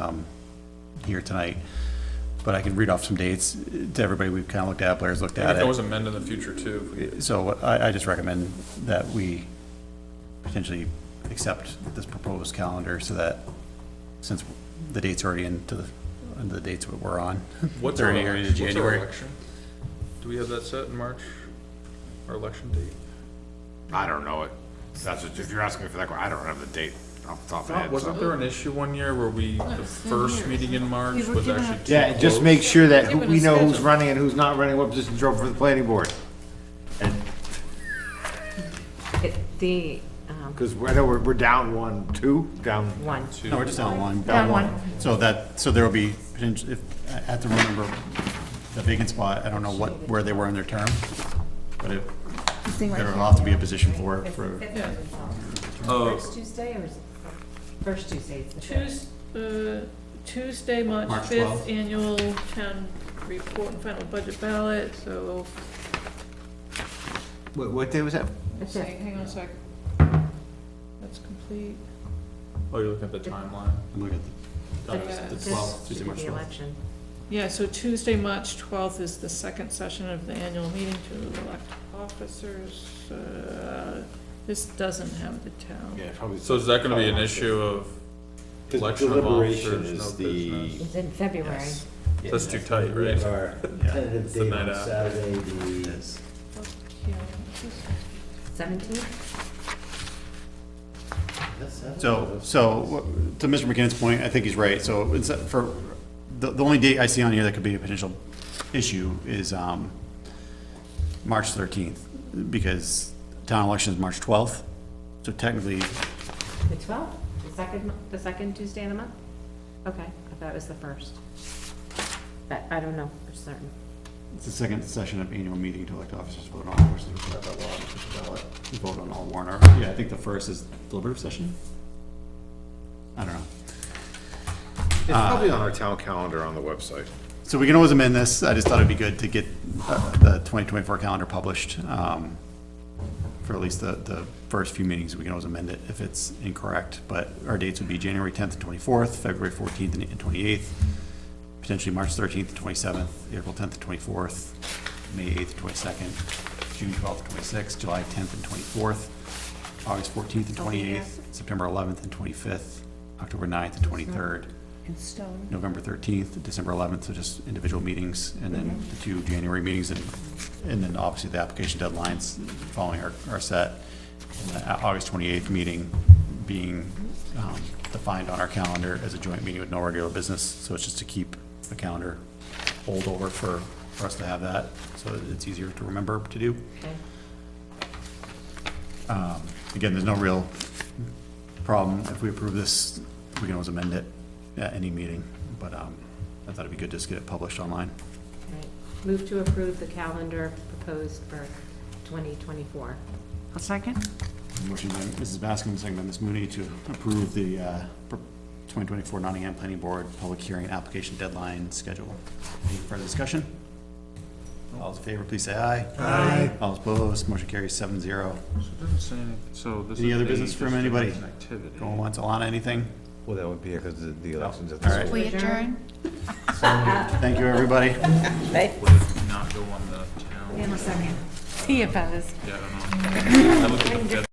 um, here tonight, but I can read off some dates to everybody. We've kind of looked at, Blair's looked If at there was it. a mend in the future too, So I, I just recommend that we potentially accept this proposed calendar so that, since the date's already into the, the dates that we're on. what's our, they're already into elec- what's our January. election? Do we have that set in March? Our election date? I don't know it. That's what, if you're asking me for that, que- I don't have the date off the top of my head. Wasn't so- there an issue one year where we, the first meeting in March We were was given actually a- too Yeah, just close? make sure that who- Given a we know who's schedule. running and who's not running, what position's open for the planning board. It- The, um, Because I know we're, we're down one, two, down, uh, one, No, we're just down one. Down one. So that, so there will be, potent- if, I have to remember the vacant spot, I don't know what, where they were in their term, but it, there will have to be a position for, for, Oh. Oh, first Tuesday or is it, first Tuesday is the fifth? Tues- uh, Tuesday, March March 12th. fifth, annual town report and final budget ballot, so, what, what day was that? It's hang it. hang on a sec. That's complete. Oh, you're looking at the timeline? I'm looking at Uh, the, Yeah. the This twelfth, should Tuesday, be March the twelfth. election. Yeah, so Tuesday, March twelfth is the second session of the annual meeting to elect officers. Uh, This doesn't have the town. Yeah, probably. So is that gonna be an issue of election of Deliberation officers, is no business? the. It's in February. That's too tight, We have right? our Yeah. tentative the date night on after. Saturday, the Yeah, just- Seventeenth? So, so, wh- to Mr. McKinnon's point, I think he's right, so, it's, uh, for, the, the only date I see on here that could be a potential issue is, um, March thirteenth, because town election is March twelfth, so technically, The twelfth? The second, mo- the second Tuesday of the month? Okay, I thought it was the first. But I don't know for certain. It's the second session of annual meeting to elect officers, vote on all persons required by law, to ballot, and vote on all warrant articles. Yeah, I think the first is deliberative session? I don't know. It's probably on our town calendar on the website. So we can always amend this, I just thought it'd be good to get uh, the 2024 calendar published, um, for at least the, the first few meetings, we can always amend it if it's incorrect, but our dates would be January 10th and 24th, February 14th and 28th, potentially March 13th and 27th, April 10th and 24th, May 8th and 22nd, June 12th and 26th, July 10th and 24th, August 14th and 28th, September 11th and 25th, October 9th and 23rd, November 13th, December 11th, so just individual meetings, and then the two January meetings, and, and then obviously the application deadlines following are, are set. And the Au- August 28th meeting being um, defined on our calendar as a joint meeting with no regular business, so it's just to keep the calendar holdover for, for us to have that, so it's easier to remember to do. Okay. Um, Again, there's no real problem. If we approve this, we can always amend it at any meeting, but um, I thought it'd be good just to get it published online. Right. Move to approve the calendar proposed for twenty twenty-four. A second? Motion by Mrs. Bascom, second by Ms. Mooney to approve the uh, pr- 2024 Nottingham Planning Board Public Hearing Application Deadline Schedule. Any further discussion? All those in favor, please say aye. Aye. All opposed, motion carries seven zero. So this Any is other a business from anybody? district activity. Going once, Alana, anything? Well, that would be because of the elections at All the right, We adjourn? thank you, everybody. Would it not go on the town? See you, fellas. Yeah, I don't know. I looked at the